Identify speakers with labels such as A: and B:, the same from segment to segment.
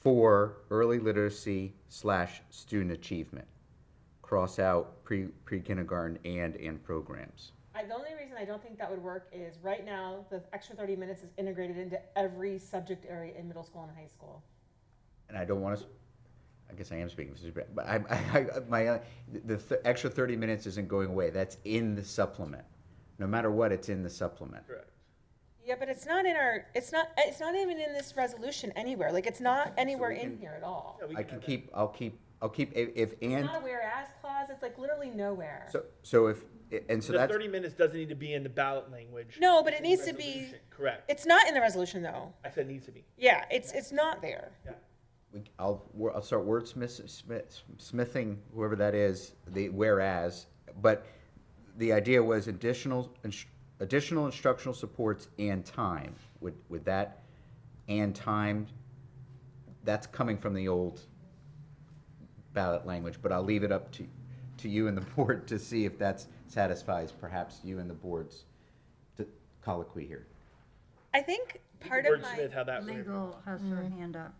A: for early literacy slash student achievement. Cross out pre, pre-kindergarten and, and programs.
B: I, the only reason I don't think that would work is right now, the extra thirty minutes is integrated into every subject area in middle school and high school.
A: And I don't want to, I guess I am speaking, for Sabrina, but I, I, I, my, uh, the th- extra thirty minutes isn't going away. That's in the supplement. No matter what, it's in the supplement.
C: Correct.
B: Yeah, but it's not in our, it's not, it's not even in this resolution anywhere, like, it's not anywhere in here at all.
C: Yeah, we
A: I
C: have
A: can
C: that.
A: keep, I'll keep, I'll keep, if, if
B: It's
A: and,
B: not a whereas clause, it's like literally nowhere.
A: so, so if, and so
C: The
A: that's.
C: thirty minutes doesn't need to be in the ballot language.
B: No, but it
C: It's in the
B: needs to be-
C: resolution. Correct.
B: It's not in the resolution, though.
C: I said needs to be.
B: Yeah, it's, it's not there.
C: Yeah.
A: we, I'll, wor- I'll start wordsmith, smith, smithing whoever that is, the whereas, but the idea was additional, ins- additional instructional supports and time. Would, would that, and time, that's coming from the old ballot language, but I'll leave it up to, to you and the board to see if that satisfies perhaps you and the board's d- colloquy here.
B: I think
C: You
B: part
C: can
B: of my,
C: wordsmith how that would-
D: Legal has her hand up.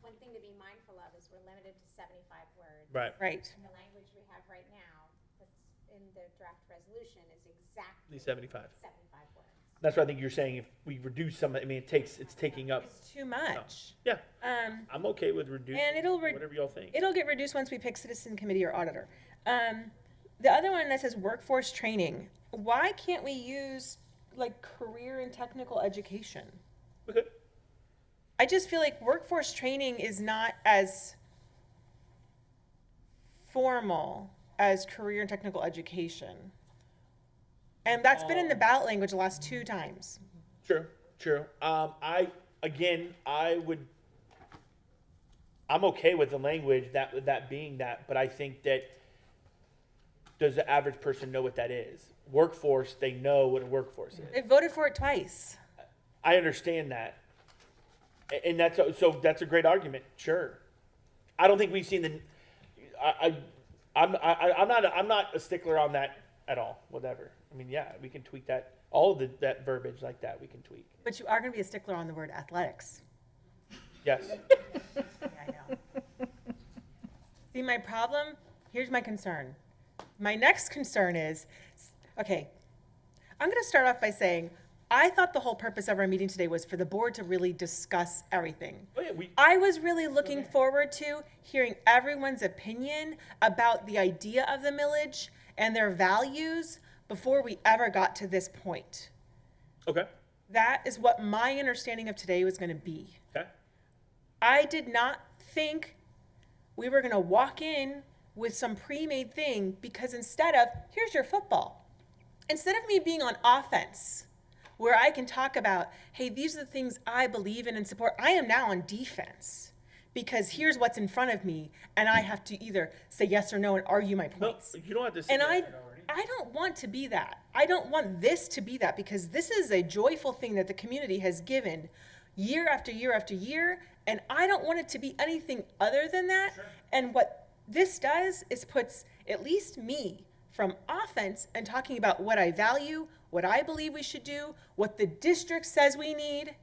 E: One thing to be mindful of is we're limited to seventy-five words.
C: Right.
B: right,
E: And the language we have right now, that's in the draft resolution, is
C: Be
E: exactly
C: seventy-five.
E: seventy-five words.
C: That's what I think you're saying. If we reduce some, I mean, it takes, it's taking up.
B: it's too much.
C: Yeah,
B: Um,
C: I'm okay with reducing.
B: And it'll re-
C: Whatever y'all think.
B: it'll get reduced once we pick citizen committee or auditor. Um, the other one that says workforce training, why can't we use like career and technical education?
C: We could.
B: I just feel like workforce training is not as formal as career and technical education. And that's been in the ballot language the last two times.
C: True, true. Um, I again, I would. I'm okay with the language that with that being that, but I think that does the average person know what that is? Workforce, they know what a workforce is.
B: They voted for it twice.
C: I understand that, A- and that's a, so that's a great argument. Sure, I don't think we've seen the. I, I I'm I, I'm not I'm not a stickler on that at all. Whatever. I mean, yeah, we can tweak that. All of the, that verbiage like that, we can tweak.
B: But you are going to be a stickler on the word athletics.
C: Yes.
B: See, my problem, here's my concern. My next concern is okay, I'm going to start off by saying I thought the whole purpose of our meeting today was for the board to really discuss everything.
C: Oh, yeah, we,
B: I was really looking forward to hearing everyone's opinion about the idea of the millage and their values before we ever got to this point.
C: okay.
B: That is what my understanding of today was going to be.
C: Okay.
B: I did not think we were going to walk in with some pre made thing because instead of, here's your football, instead of me being on offense where I can talk about, hey, these are the things I believe in and support, I am now on defense because here's what's in front of me and I have to either say yes or no and argue my
C: No,
B: points.
C: you don't have to. say
B: And I,
C: that already.
B: I don't want to be that. I don't want this to be that because this is a joyful thing that the community has given year after year after year. And I don't want it to be anything other than that. And what this does is puts at least me from offense and talking about what I value, what I believe we should do, what the district says we need,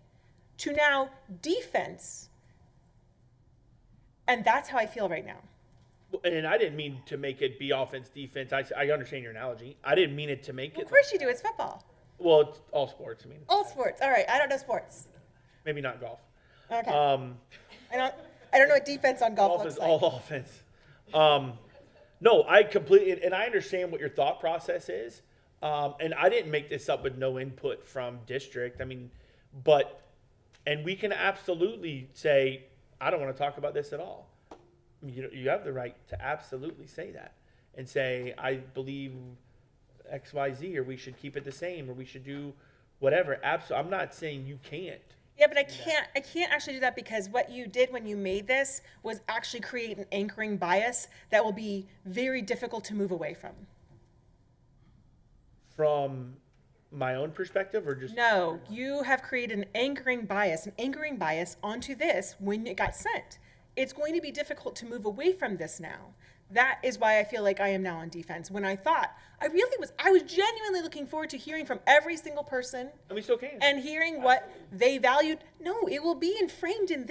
B: to now defense. And that's how I feel right now.
C: And I didn't mean to make it be offense, defense. I, I understand your analogy. I didn't mean it to make it.
B: Of course you do, it's football.
C: well, it's all sports. I mean,
B: All sports. All right, I don't know sports.
C: maybe not golf.
B: Okay.
C: Um,
B: I don't. I don't know what defense on golf
C: golf
B: looks
C: is
B: like.
C: all offense. Um, no, I completely and I understand what your thought process is. Um, and I didn't make this up with no input from district. I mean, but and we can absolutely say I don't want to talk about this at all. You know, you have the right to absolutely say that and say I believe X Y Z or we should keep it the same or we should do whatever. Abs- I'm not saying you can't.
B: Yeah, but I can't. I can't actually do that because what you did when you made this was actually create an anchoring bias that will be very difficult to move away from.
C: From my own perspective or just
B: No, you have created an anchoring bias, an anchoring bias onto this when it got sent. It's going to be difficult to move away from this now. That is why I feel like I am now on defense. When I thought I really was, I was genuinely looking forward to hearing from every single person
C: and we still can.
B: and hearing what they valued. No, it will be framed in